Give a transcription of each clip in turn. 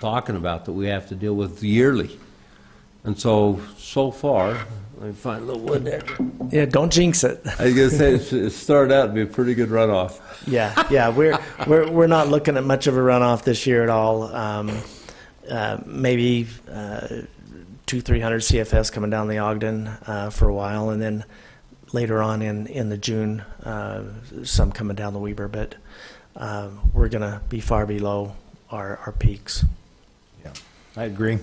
talking about that we have to deal with yearly. And so, so far, let me find a little wood there. Yeah, don't jinx it. I was gonna say, it's- it started out to be a pretty good runoff. Yeah, yeah, we're we're we're not looking at much of a runoff this year at all. Um, uh, maybe uh, two, three hundred CFS coming down the Ogden uh, for a while, and then later on in in the June, uh, some coming down the Weber. But um, we're gonna be far below our our peaks. Yeah, I agree.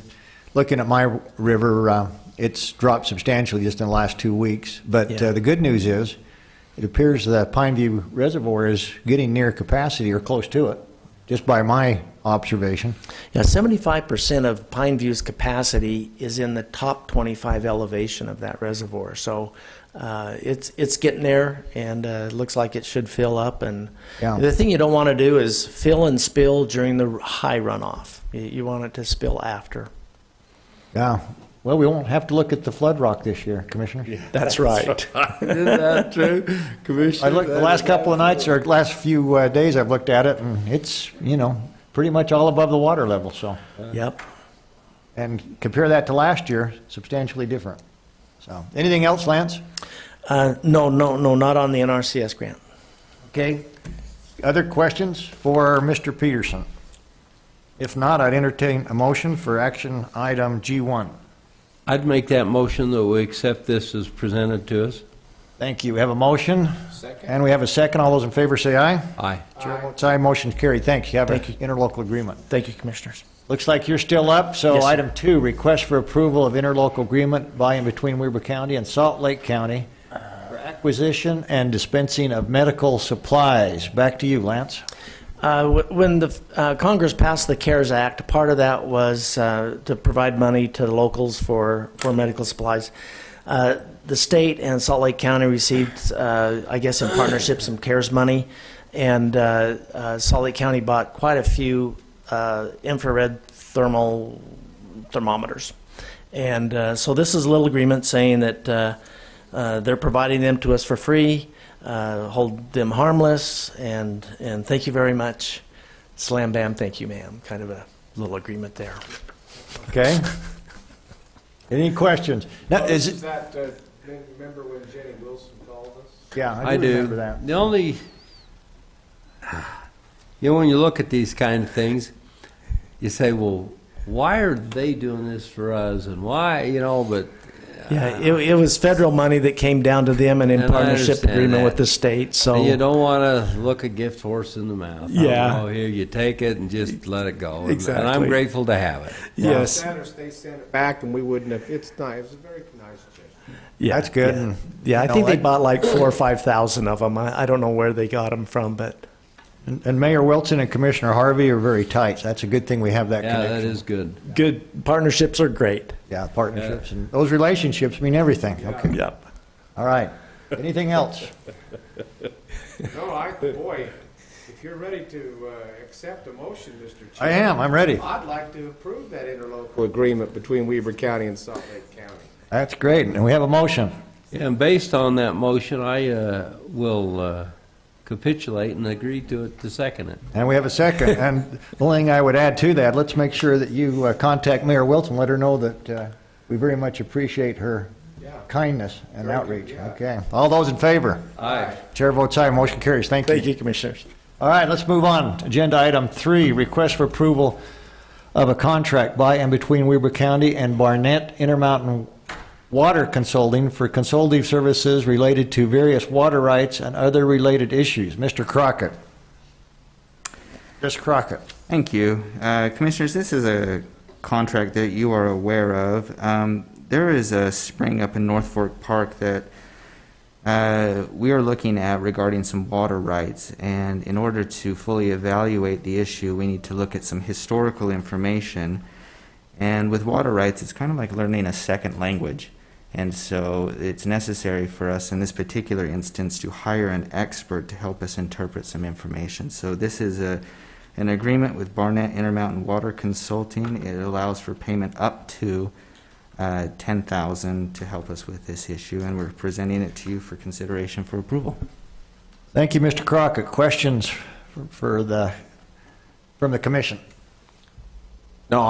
Looking at my river, uh, it's dropped substantially just in the last two weeks. But Yeah. uh, the good news is, it appears the Pine View Reservoir is getting near capacity or close to it, just by my observation. Now, seventy-five percent of Pine View's capacity is in the top twenty-five elevation of that reservoir. So uh, it's it's getting there, and uh, it looks like it should fill up. And Yeah. the thing you don't want to do is fill and spill during the high runoff. You, you want it to spill after. Yeah. Well, we won't have to look at the flood rock this year, Commissioner. That's right. Isn't that true, Commissioner? I looked the last couple of nights or last few uh, days. I've looked at it, and it's you know pretty much all above the water level. So, yep. and compare that to last year, substantially different. So, anything else, Lance? Uh, no, no, no, not on the NRCS grant. Okay. Other questions for Mr. Peterson? If not, I'd entertain a motion for action item G1. I'd make that motion that we accept this as presented to us. Thank you. We have a motion. Second. And we have a second. All those in favor say aye. Aye. Chair votes aye. Motion carried. Thanks. You have an Thank you. interlocal agreement. Thank you, commissioners. Looks like you're still up. So Yes, sir. item two, request for approval of interlocal agreement by and between Weber County and Salt Lake County for acquisition and dispensing of medical supplies. Back to you, Lance. Uh, wh- When the uh, Congress passed the CARES Act, part of that was uh, to provide money to the locals for, for medical supplies. Uh, The state and Salt Lake County received, uh, I guess in partnership, some CARES money, and uh, uh, Salt Lake County bought quite a few uh, infrared thermal thermometers. And uh, so this is a little agreement saying that uh, uh, they're providing them to us for free, uh, hold them harmless, and, and thank you very much. Slam bam, thank you, ma'am. Kind of a little agreement there. Okay? Any questions? Now, is it, Is that, uh, remember when Jenny Wilson called us? Yeah, I do. remember that. The only, you know, when you look at these kind of things, you say, well, why are they doing this for us and why, you know, but Yeah, it, it was federal money that came down to them and in And I partnership understand agreement that. with the state, so. you don't want to look a gift horse in the mouth. Yeah. Oh, here, you take it and just let it go. And- And Exactly. I'm grateful to have it. Yes, Saturday, they sent it back and we wouldn't have, it's nice, it's a very nice gesture. yeah. That's good. yeah. And, Yeah, I you know, think they I- bought like four or 5,000 of them. I, I don't know where they got them from, but. And and Mayor Wilson and Commissioner Harvey are very tight. So That's a good thing we have that Yeah, connection. that is good. Good, partnerships are great. Yeah, partnerships and those relationships mean everything. Okay. Yep. All right. Anything else? No, I, boy, if you're ready to, uh, accept a motion, Mr. Chair. I am. I'm ready. I'd like to approve that interlocal agreement between Weaver County and Salt Lake County. That's great. And we have a motion. And based on that motion, I uh, will uh, capitulate and agree to it to second it. And we have a second. And the only thing I would add to that, let's make sure that you uh, contact Mayor Wilson, let her know that uh, we very much appreciate her Yeah. kindness and Very good, outreach. yeah. Okay. All those in favor? Aye. Chair votes aye. Motion carries. Thank you. Thank you, commissioners. All right, let's move on. Agenda item three, request for approval of a contract by and between Weber County and Barnett Intermountain Water Consulting for consultative services related to various water rights and other related issues. Mr. Crockett. Chris Crockett. Thank you. Uh, Commissioners, this is a contract that you are aware of. Um, There is a spring up in North Fork Park that uh, we are looking at regarding some water rights. And in order to fully evaluate the issue, we need to look at some historical information. And with water rights, it's kind of like learning a second language. And so it's necessary for us in this particular instance to hire an expert to help us interpret some information. So this is a, an agreement with Barnett Intermountain Water Consulting. It allows for payment up to uh, 10000 to help us with this issue, and we're presenting it to you for consideration for approval. Thank you, Mr. Crockett. Questions for- for the, from the commission?